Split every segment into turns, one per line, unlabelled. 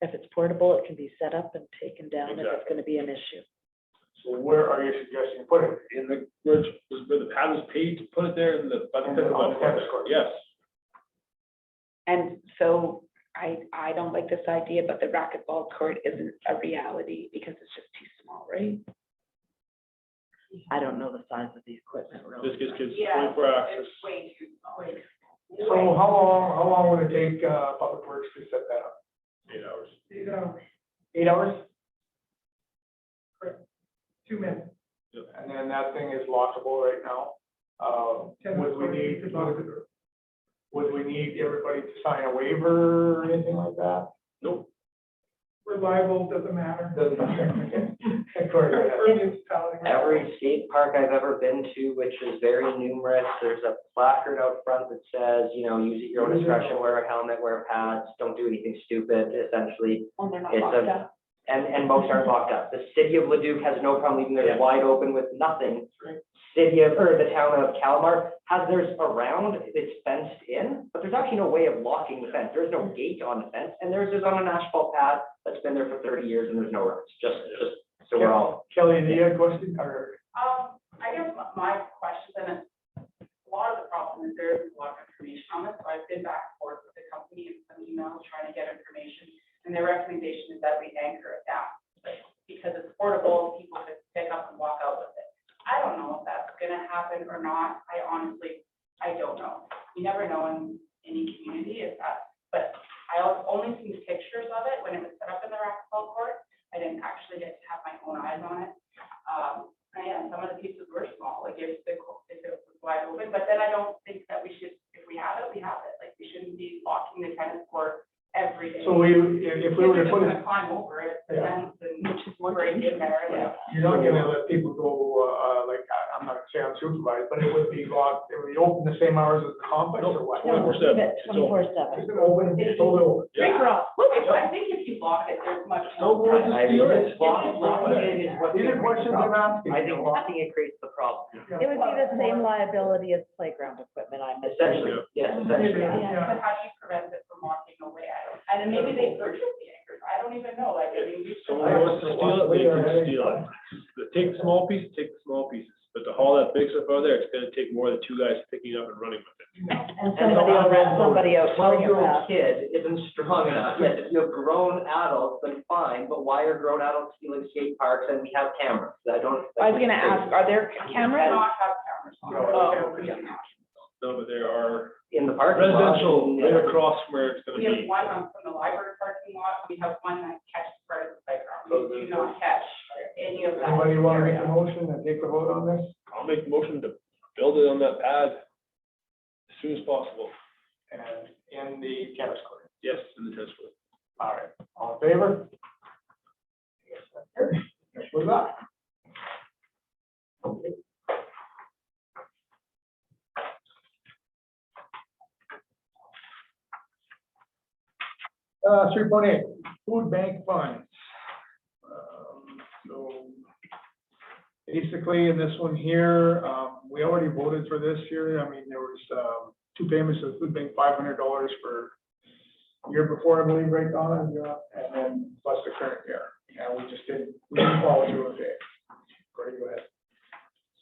If it's portable, it can be set up and taken down if it's
Exactly.
gonna be an issue.
So where are you suggesting putting it?
in the, where it's- where the pad was paid to put it there in the. by the-
In the- on the tennis court.
Yes,
And so I, I don't like this idea, but the racquetball court isn't a reality because it's just too small, right?
I don't know the size of the equipment really.
this gives kids twenty-four access.
So how long, how long would it take, uh, Public Works to set that up?
Eight hours.
Eight hours?
two minutes.
And then that thing is lockable right now. Uh,
Ten
would we
minutes,
need,
it's locked.
would we need everybody to sign a waiver or anything like that?
Nope,
Reliable, doesn't matter.
Doesn't matter. Of course,
Or municipality.
Every skate park I've ever been to, which is very numerous, there's a placard out front that says, you know, use at your
Mm-hmm.
own discretion, wear a helmet, wear pads, don't do anything stupid, essentially.
When they're not
It's
locked
a-
up.
And, and most aren't locked up. The city of Leduc has no problem leaving theirs wide open with nothing. City of, or the town of Calamar has theirs around, it's fenced in, but there's actually no way of locking the fence. There's no gate on the fence, and theirs is on an asphalt pad that's been there for thirty years and there's no roads, just, just, so we're all
Kelly, do you have a question or?
Um, I guess my question, is a lot of the problem is there isn't a lot of information on this, so I've been back and forth with the company and some emails trying to get information. And their recommendation is that we anchor it down, like, because it's portable, people could pick up and walk out with it. I don't know if that's gonna happen or not, I honestly, I don't know. You never know in any community if that, but I al- only seen pictures of it when it was set up in the racquetball court. I didn't actually get to have my own eyes on it. Um, and some of the pieces were small, like if the, co- if it was wide open, but then I don't think that we should, if we have it, we have it, like, we shouldn't be locking the tennis court every day.
So we, if if we were to put it,
Kids are just gonna climb over it, the
Yeah.
fence and break in there, and
you're not gonna let people go, uh, uh, like, I- I'm not gonna say I'm supervised, but it would be locked, it would be open the same hours as the complex or what?
No,
Twenty-four
leave
seven.
it twenty-four seven.
It's been open, it's still open.
Yeah.
I think if you lock it, there's much more.
Snowboards
I
is
think
yours.
it's blocking, blocking it is what.
These are questions I'm asking.
I think blocking it creates the problem.
It would be the same liability as playground equipment, I'm assuming.
Essentially, yes, essentially.
Yeah, But how do you prevent it from walking away? I don't, and then maybe they purchase the anchors. I don't even know, like, I mean, we.
If someone wants to steal it, they can steal it. But Take the small pieces, take the small pieces, but to haul that big stuff out of there, it's gonna take more than two guys picking up and running with it.
And somebody will rent somebody out to bring it
Twelve-year-old
back.
kid isn't strong enough, yes, if you're grown adults, then fine, but why are grown adults stealing skate parks and we have cameras? I don't.
I was gonna ask, are there
Do
cameras?
Not have cameras on.
No,
Oh,
we
yeah.
No, but there are
In the parking lot.
residential
yeah.
right across where it's gonna
We have
be.
one on from the library parking lot. We have one that catches part of the playground.
So
We
there's-
do not catch any of that.
Anybody wanna make
area.
a motion and take a vote on this?
I'll make a motion to build it on that pad as soon as possible.
And in the tennis court.
Yes, in the tennis court.
All right, all in favor? Yes, with that. Uh, three point eight, food bank funds. Um, So basically, in this one here, um, we already voted for this here. I mean, there was, um, two payments of food bank, five hundred dollars for year before, I believe, right, Donna, and, uh, and then plus the current year. Yeah, we just didn't, we didn't follow through with it. Gordy, go ahead.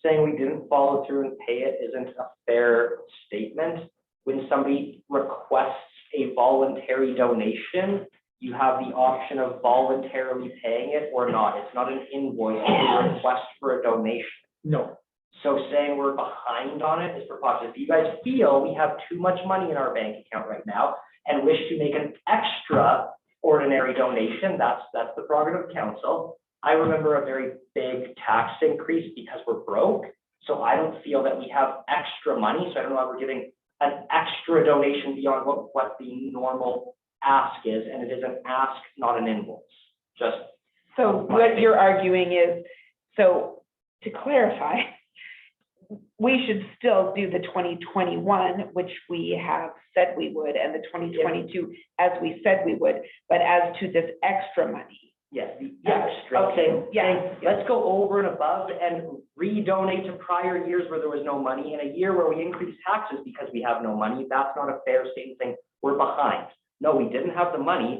saying we didn't follow through and pay it isn't a fair statement. When somebody requests a voluntary donation, you have the option of voluntarily paying it or not. It's not an invoice, it's a request for a donation.
No.
So saying we're behind on it is preposterous. If you guys feel we have too much money in our bank account right now and wish to make an extra ordinary donation, that's, that's the prerogative of council. I remember a very big tax increase because we're broke, so I don't feel that we have extra money, so I don't know why we're giving an extra donation beyond what, what the normal ask is, and it is an ask, not an invoice. Just,
So what you're arguing is, so to clarify, we should still do the twenty twenty-one, which we have said we would, and the twenty twenty-two, as we said we would, but as to this extra money.
yes, the
Yeah,
extra.
okay, yeah.
Let's go over and above and redonate to prior years where there was no money, in a year where we increase taxes because we have no money, that's not a fair statement saying, we're behind. No, we didn't have the money,